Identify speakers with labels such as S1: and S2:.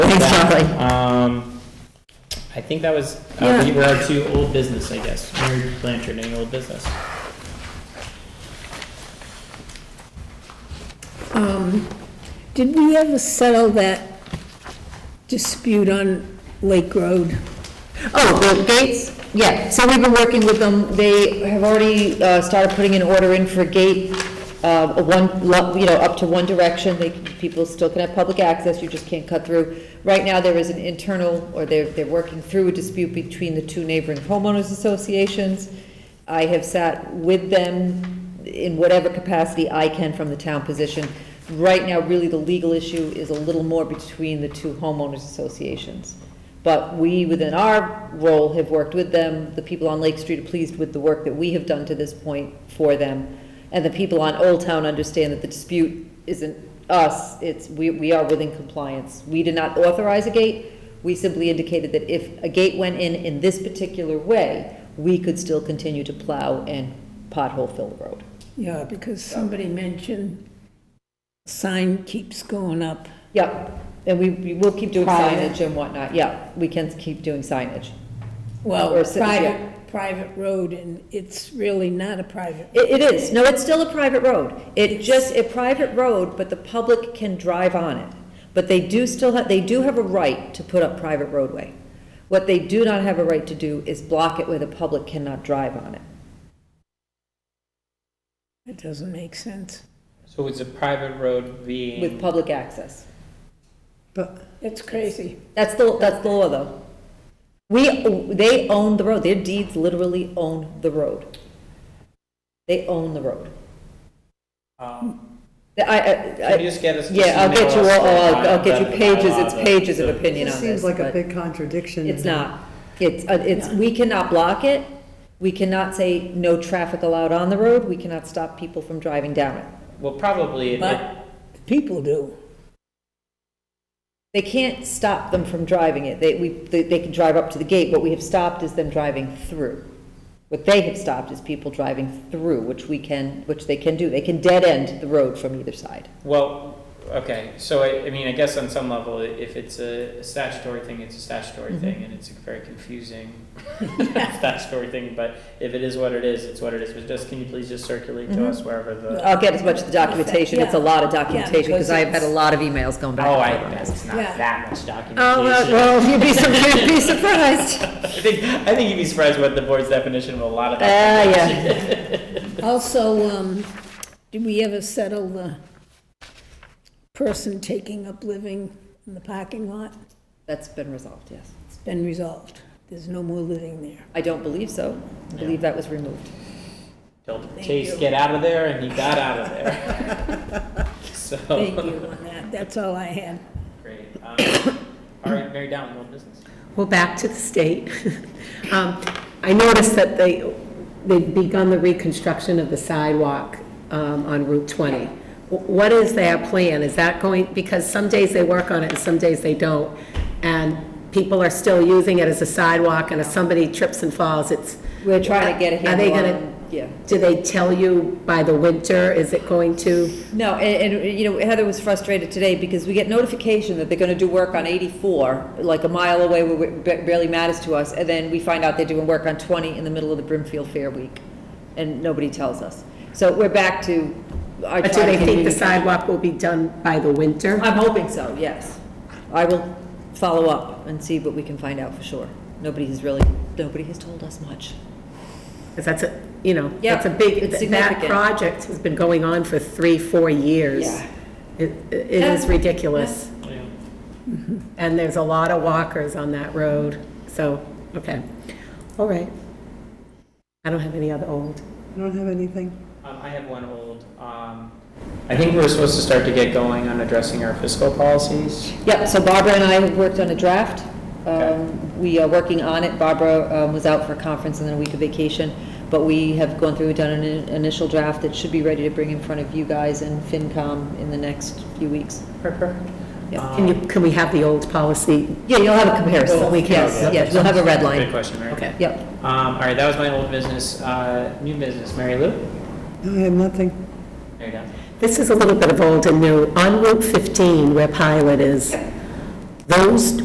S1: Exactly.
S2: that. Um, I think that was, uh, we were our two old business, I guess. Mary Blanchard, any old business?
S3: Um, Did we ever settle that dispute on Lake Road?
S1: Oh, the gates, yeah, so we've been working with them, they have already uh, started putting an order in for a gate, uh, a one, lo- you know, up to one direction, they, can- people still can have public access, you just can't cut through. Right now, there is an internal, or they're, they're working through a dispute between the two neighboring homeowners associations. I have sat with them in whatever capacity I can from the town position. Right now, really, the legal issue is a little more between the two homeowners associations. But we, within our role, have worked with them. The people on Lake Street are pleased with the work that we have done to this point for them. And the people on Old Town understand that the dispute isn't us, it's, we, we are within compliance. We did not authorize a gate. We simply indicated that if a gate went in in this particular way, we could still continue to plow and pothole fill the road.
S3: Yeah, because somebody mentioned sign keeps going up.
S1: Yep, and we, we will keep doing
S3: Private.
S1: signage and whatnot, yeah, we can keep doing signage.
S3: Well,
S1: Or sit- yeah.
S3: private, private road, and it's really not a private.
S1: It, it is, no, it's still a private road. It just, a private road, but the public can drive on it. But they do still have, they do have a right to put up private roadway. What they do not have a right to do is block it where the public cannot drive on it.
S3: It doesn't make sense.
S2: So it's a private road being.
S1: With public access.
S3: But it's crazy.
S1: That's the, that's the law, though. We, they own the road, their deeds literally own the road. They own the road.
S2: um,
S1: I, I,
S2: Can you
S1: I,
S2: just get us?
S1: yeah, I'll get you,
S2: email us
S1: all-
S2: the-
S1: I'll, I'll get you
S2: the
S1: pages,
S2: bylaw,
S1: it's
S2: the-
S1: pages of
S2: the-
S1: opinion on
S4: It
S1: this.
S4: seems like a
S1: but-
S4: big contradiction.
S1: It's not. It's, uh, it's, we cannot block it. We cannot say no traffic allowed on the road. We cannot stop people from driving down it.
S2: Well, probably, it- it-
S3: But people do.
S1: They can't stop them from driving it. They, we, they they can drive up to the gate. What we have stopped is them driving through. What they have stopped is people driving through, which we can, which they can do. They can dead end the road from either side.
S2: well, okay, so I, I mean, I guess on some level, i- if it's a statutory thing, it's a statutory
S1: Mm-hmm.
S2: thing, and it's a very confusing statutory thing, but if it is what it is, it's what it is, but just, can you please just circulate
S1: Mm-hmm.
S2: to us wherever the,
S1: I'll get as much of the documentation. It's a lot of documentation because I have had a lot of emails going back.
S2: oh,
S1: and
S2: I,
S1: forth on this.
S2: it's not
S3: Yeah.
S2: that much
S1: Oh, well,
S2: documentation.
S1: well, you'd be surprised, you'd be surprised.
S2: I think, I think you'd be surprised what the board's definition of a lot of
S1: Ah,
S3: Uh,
S2: documentation.
S1: yeah.
S3: Also, um, did we ever settle the person taking up living in the parking lot?
S1: That's been resolved, yes.
S3: It's been resolved. There's no more living there.
S1: I don't believe so. I believe that was removed.
S2: Told
S3: Thank
S2: Chase
S3: you.
S2: get out of there, and he got out of there. So.
S3: Thank you on that. That's all I had.
S2: Great. Um, All right, Mary Down, old business.
S5: Well, back to the state. Um, I noticed that they, they've begun the reconstruction of the sidewalk um, on Route 20. Wh- What is their plan? Is that going, because some days they work on it and some days they don't, and people are still using it as a sidewalk, and if somebody trips and falls, it's...
S1: We're trying to get a
S5: Are they
S1: handle
S5: gonna-
S1: on, yeah.
S5: Do they tell you by the winter? Is it going to,
S1: No, and, and, you know, Heather was frustrated today because we get notification that they're gonna do work on eighty-four, like a mile away, where it ba- barely matters to us, and then we find out they're doing work on twenty in the middle of the Brimfield Fair Week, and nobody tells us. So we're back to, I
S5: or do
S1: try to
S5: they think the
S1: communicate.
S5: sidewalk will be done by the winter?
S1: I'm hoping so, yes. I will follow up and see what we can find out for sure. Nobody has really, nobody has told us much.
S5: Because that's a, you know,
S1: Yeah,
S5: that's a big,
S1: it's
S5: th- that
S1: significant.
S5: project has been going on for three, four years.
S1: Yeah.
S5: It it is
S1: Yeah.
S5: ridiculous, and there's a lot of walkers on that road, so, okay, all right. I don't have any other old.
S4: I don't have anything.
S2: Um, I have one old. Um, I think we're supposed to start to get going on addressing our fiscal policies.
S1: Yep, so Barbara and I have worked on a draft.
S2: Okay.
S1: Um, We are working on it. Barbara um, was out for a conference and then a week of vacation, but we have gone through, done an in- initial draft that should be ready to bring in front of you guys and FinCom in the next few weeks. Yeah,
S5: Can you, can we have the old policy?
S1: Yeah, you'll have a comparison.
S5: Well, we can-
S1: Yes, yes, you'll have a red
S2: Good
S1: line.
S2: question, Mary.
S5: Okay.
S1: Yep.
S2: Um, all right, that was my old business. Uh, new business, Mary Lou?
S4: No, I have nothing.
S2: Mary Down.
S5: This is a little bit of old and new. On Route 15, where Pilot is, those